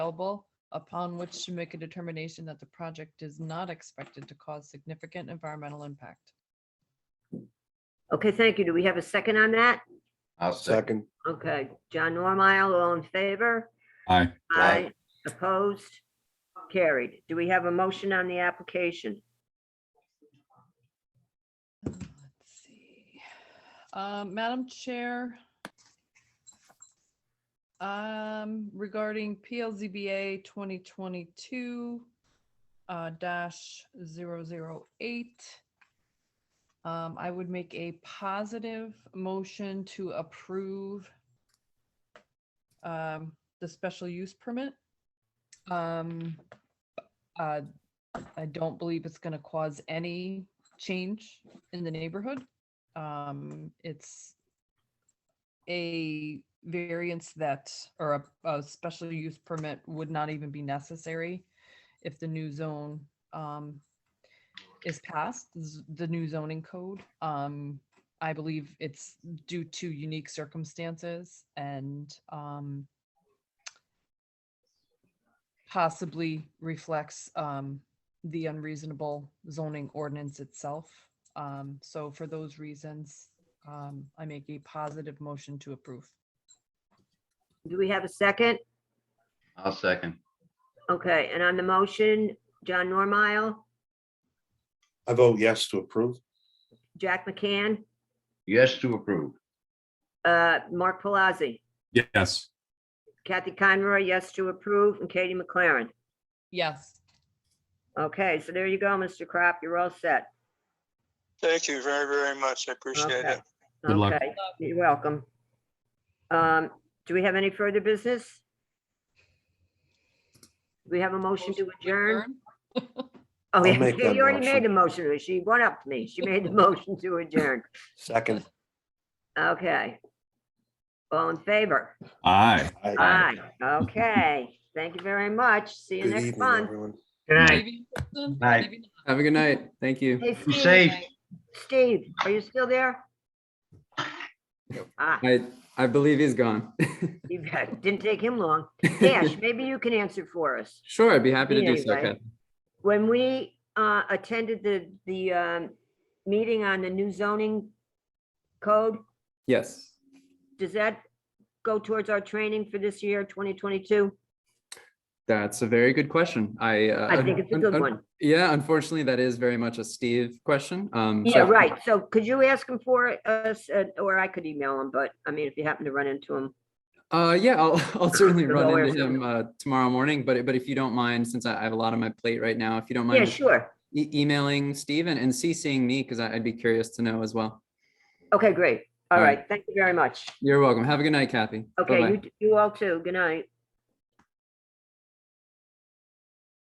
available upon which to make a determination that the project is not expected to cause significant environmental impact. Okay, thank you. Do we have a second on that? I'll second. Okay, John Normile, all in favor? Aye. Aye. Opposed? Carried. Do we have a motion on the application? Uh, Let's see. Uh, Madam Chair, um, regarding PLZBA 2022 uh, dash 008, um, I would make a positive motion to approve um, the special use permit. Um, uh, I don't believe it's going to cause any change in the neighborhood. Um, it's a variance that, or a, a special use permit would not even be necessary if the new zone, um, is passed, z- the new zoning code. Um, I believe it's due to unique circumstances and, um, possibly reflects, um, the unreasonable zoning ordinance itself. Um, so for those reasons, um, I make a positive motion to approve. Do we have a second? I'll second. Okay, and on the motion, John Normile, I vote yes to approve. Jack McCann, Yes to approve. uh, Mark Palazzi, Yes. Kathy Conroy, yes to approve, and Katie McLaren. Yes. Okay, so there you go, Mr. Crop, you're all set. Thank you very, very much. I appreciate Okay. it. Good luck. Okay, You're welcome. Um, do we have any further business? Do we have a motion to adjourn? Oh, I'll yeah, make that you already motion. made the motion. She went up to me. She made the motion to adjourn. Second. Okay. All in favor? Aye. Aye. Aye. Okay. Thank you very much. See you Good next evening, month. everyone. Maybe Kristen, Aye. maybe not. Have a good night. Thank you. Hey, Be Steve- safe. Steve, are you still there? Ah, I, I believe he's gone. you bet. didn't take him long. Dash, maybe you can answer for us. Sure, I'd be happy to Yeah, do you're so, right. Kathy. When we uh, attended the, the um, meeting on the new zoning code, Yes. does that go towards our training for this year, 2022? That's a very good question. I. uh, I think it's a un- good un- one. Yeah, unfortunately, that is very much a Steve question. Um, Yeah, so- right. So could you ask him for us, uh, or I could email him, but I mean, if you happen to run into him. Uh, yeah, I'll, I'll certainly The run lawyer's into him uh, tomorrow morning, but, but if you don't mind, since I I have a lot on my plate right now, if you don't Yeah, mind sure. e- emailing Steve and and CCing me, because I'd be curious to know as well. Okay, great. All All right. right. Thank you very much. You're welcome. Have a good night, Kathy. Okay, Bye-bye. you, you all too. Good night.